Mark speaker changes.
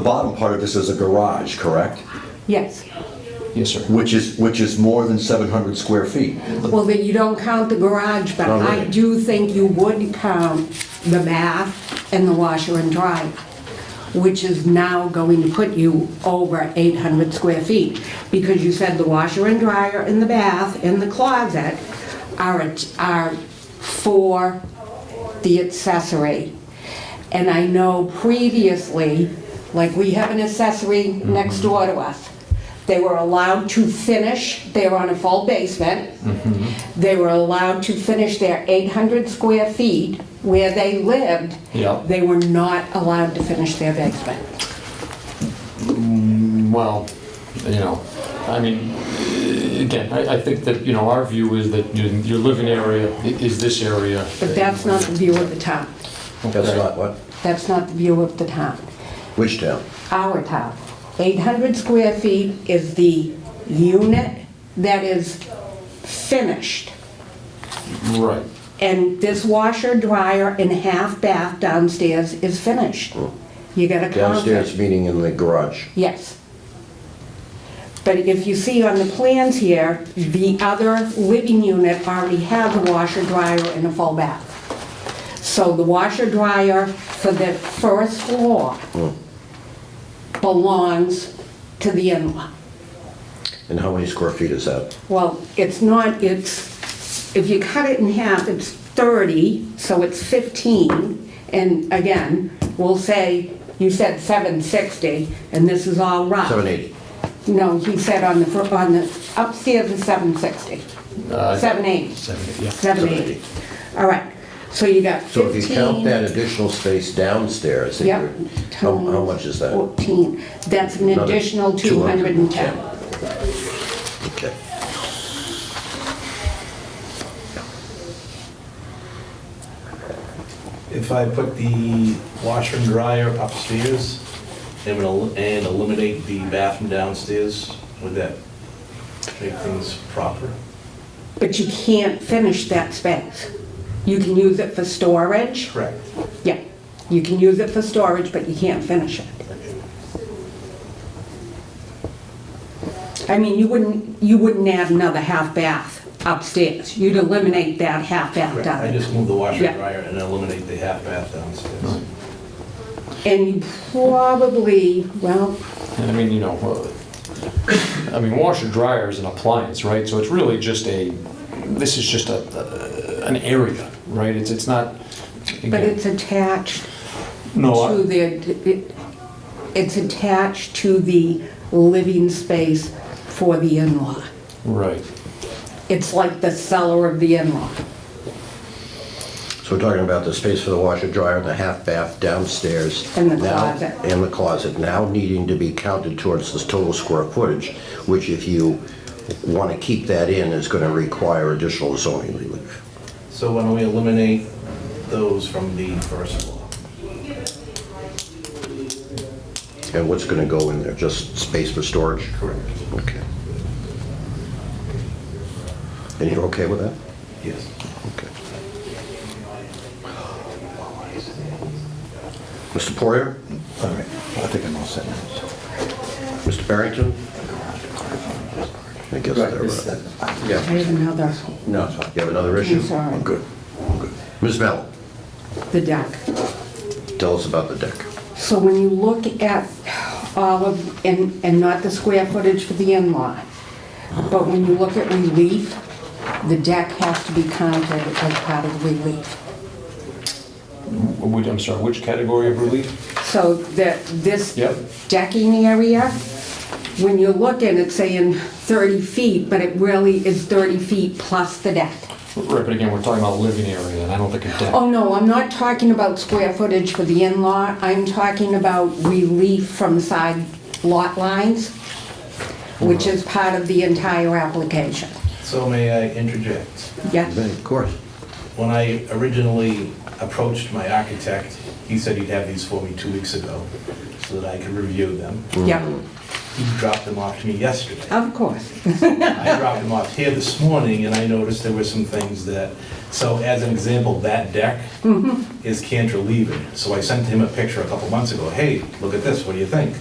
Speaker 1: The bottom part of this is a garage, correct?
Speaker 2: Yes.
Speaker 3: Yes, sir.
Speaker 1: Which is, which is more than 700 square feet.
Speaker 2: Well, then you don't count the garage, but
Speaker 1: Not
Speaker 2: I
Speaker 1: really.
Speaker 2: do think you would count the bath and the washer and dryer, which is now going to put you over 800 square feet, because you said the washer and dryer and the bath and the closet are, at- are for the accessory. And I know previously, like we have an accessory next door to us. They were allowed to finish, they were on a full basement. They were allowed to finish their 800 square feet where they lived.
Speaker 3: Yeah.
Speaker 2: They were not allowed to finish their basement.
Speaker 3: Well, you know, I mean, again, I, I think that, you know, our view is that your, your living area i- is this area.
Speaker 2: But that's not the view of the town.
Speaker 1: That's
Speaker 3: Okay.
Speaker 1: not what?
Speaker 2: That's not the view of the town.
Speaker 1: Which town?
Speaker 2: Our town. 800 square feet is the unit that is finished.
Speaker 3: Right.
Speaker 2: And this washer, dryer, and half bath downstairs is finished. You gotta count it.
Speaker 1: Downstairs, meaning in the garage.
Speaker 2: Yes. But if you see on the plans here, the other living unit already has a washer, dryer, and a full bath. So the washer, dryer for the first floor belongs to the in-law.
Speaker 1: And how many square feet is that?
Speaker 2: Well, it's not, it's, if you cut it in half, it's 30, so it's 15. And again, we'll say, you said 760, and this is all rough.
Speaker 1: 780.
Speaker 2: No, he said on the, fir- on the, upstairs is 760.
Speaker 3: Uh,
Speaker 2: 780.
Speaker 3: Seven, yeah.
Speaker 2: 780. All right, so you got
Speaker 1: So if
Speaker 2: 15.
Speaker 1: you count that additional space downstairs, that
Speaker 2: Yep.
Speaker 1: you're- how, how much is that?
Speaker 2: 14. That's an
Speaker 1: Another
Speaker 2: additional 210.
Speaker 1: Okay.
Speaker 4: If I put the washer and dryer upstairs and would el- and eliminate the bathroom downstairs, would that make things proper?
Speaker 2: But you can't finish that space. You can use it for storage.
Speaker 4: Correct.
Speaker 2: Yeah, you can use it for storage, but you can't finish it. I mean, you wouldn't, you wouldn't add another half bath upstairs. You'd eliminate that half bath
Speaker 4: Correct. I
Speaker 2: down.
Speaker 4: just move the washer
Speaker 2: Yeah.
Speaker 4: and dryer and eliminate the half bath downstairs.
Speaker 2: And you probably, well,
Speaker 3: And I mean, you know, uh, I mean, washer dryer is an appliance, right? So it's really just a, this is just a, uh, an area, right? It's, it's not.
Speaker 2: but it's attached
Speaker 4: Oh,
Speaker 3: No,
Speaker 2: to
Speaker 3: I-
Speaker 2: the, it- it's attached to the living space for the in-law.
Speaker 3: right.
Speaker 2: It's like the cellar of the in-law.
Speaker 5: So we're talking about the space for the washer dryer and the half bath downstairs.
Speaker 2: And the
Speaker 5: now-
Speaker 2: closet.
Speaker 5: And the closet, now needing to be counted towards this total square footage, which if you want to keep that in, is going to require additional zoning relief.
Speaker 4: So why don't we eliminate those from the first floor?
Speaker 5: And what's going to go in there, just space for storage?
Speaker 4: Correct.
Speaker 5: Okay. And you're okay with that?
Speaker 4: Yes.
Speaker 5: Okay. Mr. Poirier?
Speaker 6: All right, I think I'm all set now.
Speaker 5: Mr. Barrington? I guess they're... uh,
Speaker 2: I have another,
Speaker 5: No, you have another issue?
Speaker 2: I'm sorry.
Speaker 5: I'm good. I'm good. Ms. Mello,
Speaker 2: the deck.
Speaker 5: tell us about the deck.
Speaker 2: So when you look at all of, and, and not the square footage for the in-law, but when you look at relief, the deck has to be counted as part of relief.
Speaker 3: Which, I'm sorry, which category of relief?
Speaker 2: So that, this
Speaker 3: Yep.
Speaker 2: decking area, when you look at it saying 30 feet, but it really is 30 feet plus the deck.
Speaker 3: Right, but again, we're talking about living area, and I don't think a deck.
Speaker 2: Oh, no, I'm not talking about square footage for the in-law, I'm talking about relief from side lot lines, which is part of the entire application.
Speaker 4: So may I interject?
Speaker 2: Yeah,
Speaker 5: Of course.
Speaker 4: When I originally approached my architect, he said he'd have these for me two weeks ago so that I could review them.
Speaker 2: yeah,
Speaker 4: He dropped them off to me yesterday.
Speaker 2: Of course.
Speaker 4: I dropped them off here this morning, and I noticed there were some things that, so as an example, that deck is cantilevered. So I sent him a picture a couple months ago, hey, look at this, what do you think?